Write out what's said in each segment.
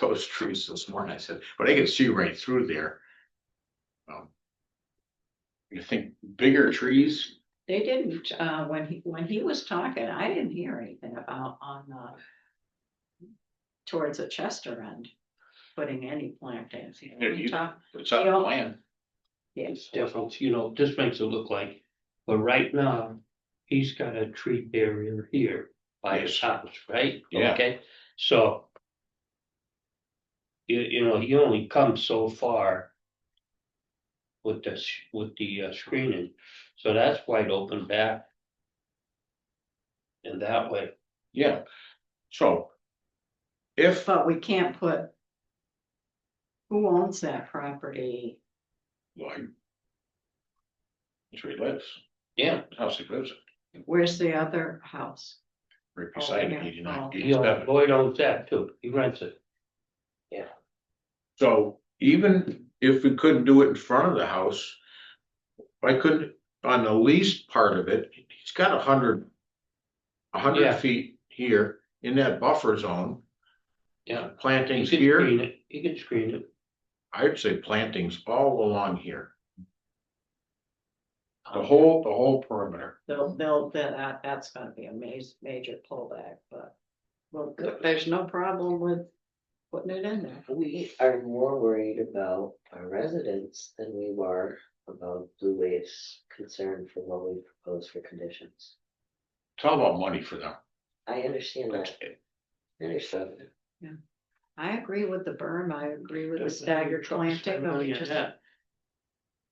those trees this morning, I said, but I can see right through there. Um, You think bigger trees, They didn't, uh, when he, when he was talking, I didn't hear anything about on, uh. Towards the Chester end, putting any plantings. He Yeah, you- talked- it's on the plan, Yes, difference, you know, this makes it look like, but right now, he's got a tree barrier here by his Yes. house, right? Yeah. Okay, so. You, you know, he only comes so far. With this, with the uh, screening, so that's wide open back. And that way, yeah, so. If, but we can't put. Who owns that property? like. That's where he lives, yeah, the house he lives, in, Where's the other house? right beside yeah. him, eighty-nine, Oh. he owns, eighty-seven, Lloyd owns that too, he rents it. so even if we couldn't do it in front of the house. Why couldn't, on the least part of it, he's got a hundred. A hundred Yeah. feet here in that buffer zone. Yeah. He Plantings can here. screen it, he can screen it. I'd say plantings all along here, the whole, the whole perimeter. They'll, they'll, that, that's gonna be a ma- major pullback, but. Well, good, there's no problem with putting it in there. We are more worried about our residents than we were about Blue Wave's concern for what we propose for conditions. It's all about money for them. I understand that, I understand that. I agree with the berm, I agree with the staggered planting, but we just-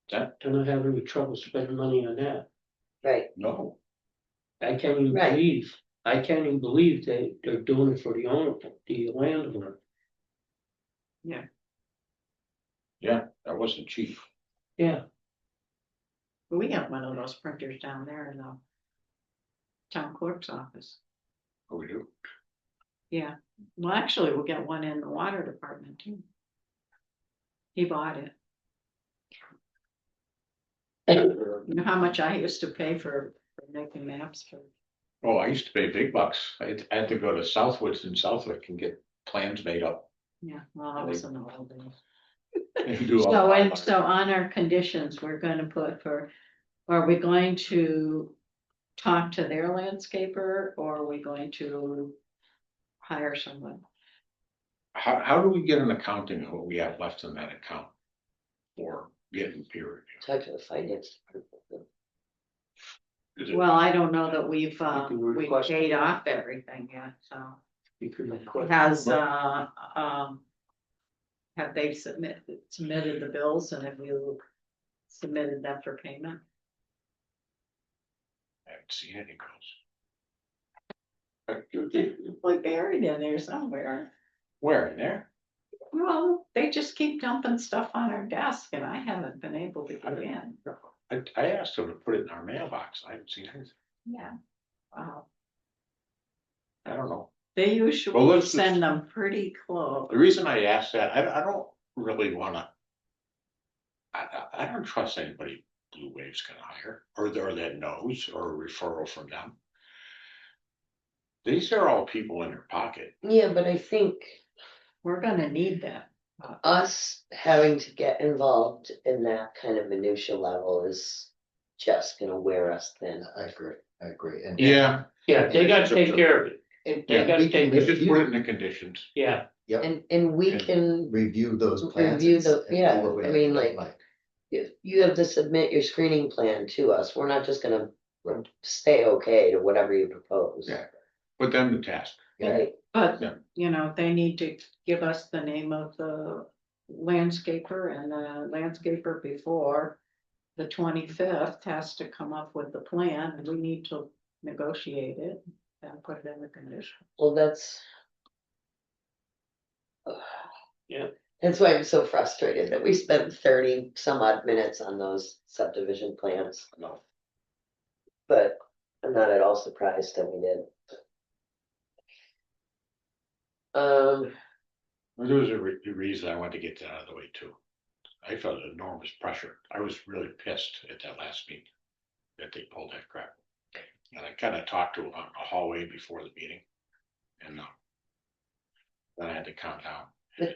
That- Do not have any trouble spending money on that. Right, No, I can't even Right. believe, I can't even believe they, they're doing it for the owner, the landowner. that wasn't cheap. Yeah, We got one of those printers down there in the town clerk's office. What we do, Yeah, well, actually, we'll get one in the water department too. He bought it. You know how much I used to pay for for making maps for, oh, I used to pay big bucks. I had- I had to go to Southwoods in Southwick and get plans made up. yeah, well, I was in the old days. and do all So, that. and so on our conditions, we're gonna put for, are we going to talk to their landscaper or are we going to hire someone? How, how do we get an accounting of what we have left in that account? Or getting peer review? talk to the finance. department. Is it- Well, I don't know that we've, uh, can we request- paid off everything yet, so. you could request. Has, uh, um. Have they submitted, submitted the bills and have you submitted them for payment? I haven't seen any girls. Uh, Like buried in there somewhere. Where, in there? Well, they just keep dumping stuff on our desk and I haven't been able to get in. I, I asked them to put it in our mailbox. I haven't seen anything. Yeah. Wow, I don't know. they Well, usually let's just- send them pretty close. The reason I ask that, I, I don't really wanna. I, I, I don't trust anybody Blue Wave's gonna hire, or there that knows, or a referral from them. These are all people in their pocket. Yeah, but I think We're gonna need that. us having to get involved in that kind of minutia level is just gonna wear us thin. I agree, I agree, and. Yeah. Yeah, they gotta take care of it, And They gotta we take can They the- just put review, it in the conditions. yeah, yep, And, and we Okay. can review those plans. Review the- and see yeah, what we I have mean, to like- like, you, you have to submit your screening plan to us, we're not just gonna say okay to whatever you propose. Yeah. Put them to task. yeah, Right, But, Yeah. you know, they need to give us the name of the landscaper and the landscaper before. The twenty-fifth has to come up with the plan, and we need to negotiate it and put it in the condition. well, that's. Yeah. That's why I'm so frustrated that we spent thirty some odd minutes on those subdivision plans, No. but I'm not at all surprised that we did. Um, There was a re- a reason I wanted to get that out of the way too. I felt enormous pressure. I was really pissed at that last meeting. That they pulled that crap. And I kinda talked to him on the hallway before the meeting. And uh. um, Then I had to calm down.